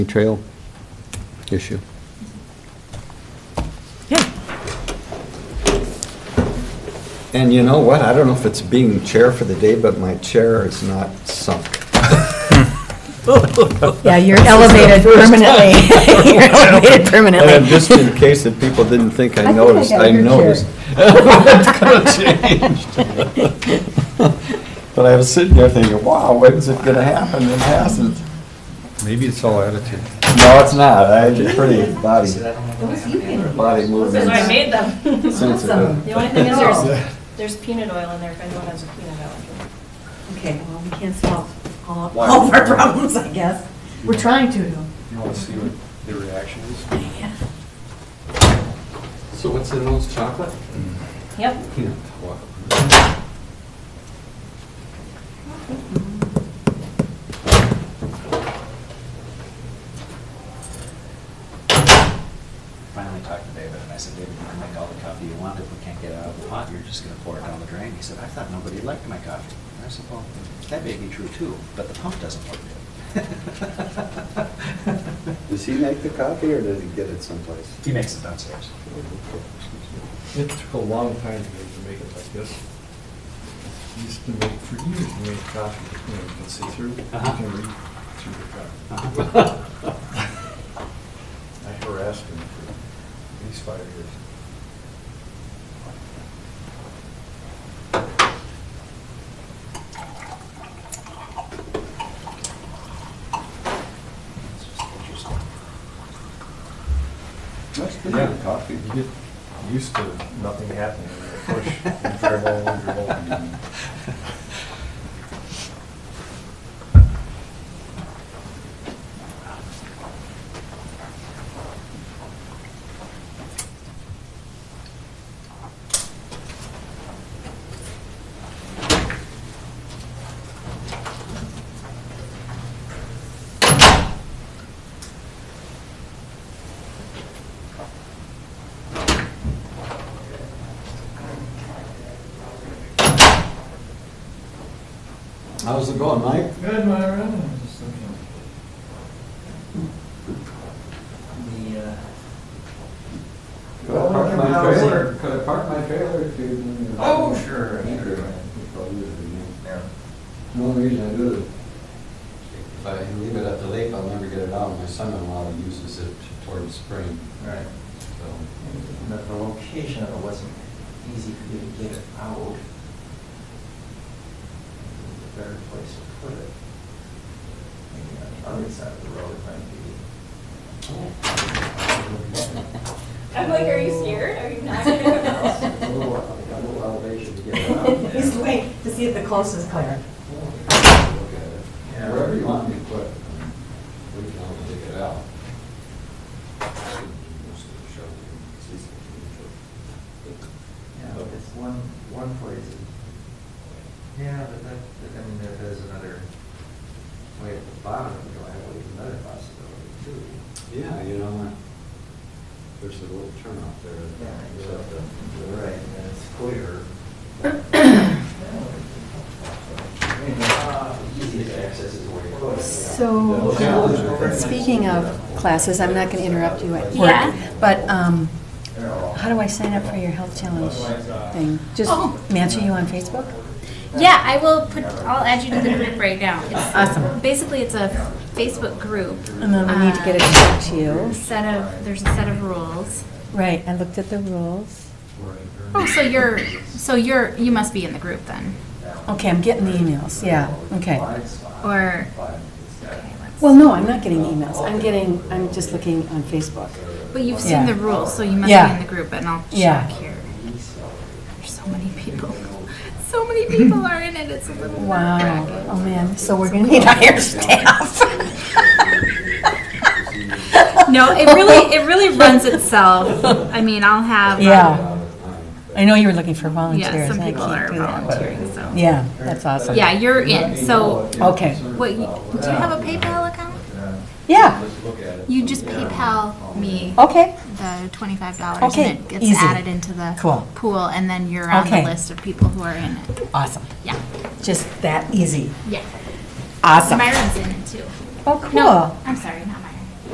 trail issue. Yeah, And you know what? I don't know if it's being chair for the day, but my chair is not sunk. yeah, you're elevated permanently. You're elevated And permanently. just in case that people didn't think I think I noticed, got I your chair. noticed. It's gonna change. But I was sitting there thinking, wow, when's it gonna happen? It hasn't. Maybe it's all attitude. No, it's not. I had a pretty body, body Because I movement. made them. sensitive. The only thing is there's, there's peanut oil in there if anyone has a peanut allergy. Okay, well, we can't solve all, all of our problems, I guess. We're trying to. though. You want to see what the reaction is? So what's in those chocolate? Yep. Peanut. Finally talked to David, and I said, David, you can make all the coffee you want, if we can't get it out of the pot, you're just gonna pour it down the drain. He said, I thought nobody liked my coffee. And I said, well, that may be true too, but the pump doesn't work good. Does he make the coffee or does he get it someplace? He makes it downstairs. It took a long time for me to make it like this. You Used to make, for years, you made coffee, you know, you can see through, you Uh-huh. can read through the coffee. I harassed him for at least five years. It's just interesting. That's pretty good coffee. You get used to nothing happening, you push, you dribble, you dribble, and How's it going, Mike? Good, Myra. I'm just looking. The, uh, Could I park my How's it? trailer? Could I park my trailer if you- Oh, sure, Thank you. sure. Probably would be me. yeah, The only reason I do it, if I leave it at the lake, I'll never get it out. My son-in-law uses it toward spring, right. so. The, the location of it wasn't easy for you to get it out. The better place to put it. Maybe on the other side of the road might I'm like, are you scared? Are you not? gonna come out?" be. A little, a little elevation to get it out. Look He's waiting to see if the close is clear. at it. Yeah. Wherever you want me to put it, we can all dig it out. Yeah, but it's one, one place. Yeah, but that, that- I mean, there is another way at the bottom of the driveway, is another possibility too. Yeah, you know, I- there's a little turnout there. Yeah, So, You're right, and it's clear. Uh, Easy to access is where you're. So, speaking of classes, I'm not going to interrupt you at Yeah. work, but um, how do I sign up for your health challenge thing? Just Oh. matching you on Facebook? Yeah, I will put, I'll add you to the group right now. It's- Awesome. Basically, it's a Facebook group. And then we need to get it back to you. A Set of, there's a set of rules. Right, I looked at the rules. Oh, so you're, so you're, you must be in the group then? Okay, I'm getting the emails, yeah, okay. Or, okay, Well, no, I'm not getting emails, I'm getting, I'm just looking on Facebook. but you've Yeah. seen the rules, so you must Yeah. be in the group, and I'll Yeah. check here. There's so many people. So many people are in it, it's a little Wow, nerve-wracking. oh man, so we're going to need higher staff. No, it really, it really runs itself. I mean, I'll have. um, Yeah, I know you were looking for volunteers. Yeah, some I people can't are do that. volunteering, so. Yeah, that's awesome. Yeah, you're in, so Okay, Wait, you- do you have a PayPal account? yeah, You just PayPal me okay, the twenty-five dollars Oh. Okay, and it gets easy. added into the Cool. pool and then you're on the Okay. list of people who are in it. awesome, Yeah, just that easy, yeah. awesome. Myron's in it too. Oh, No, cool. I'm sorry, not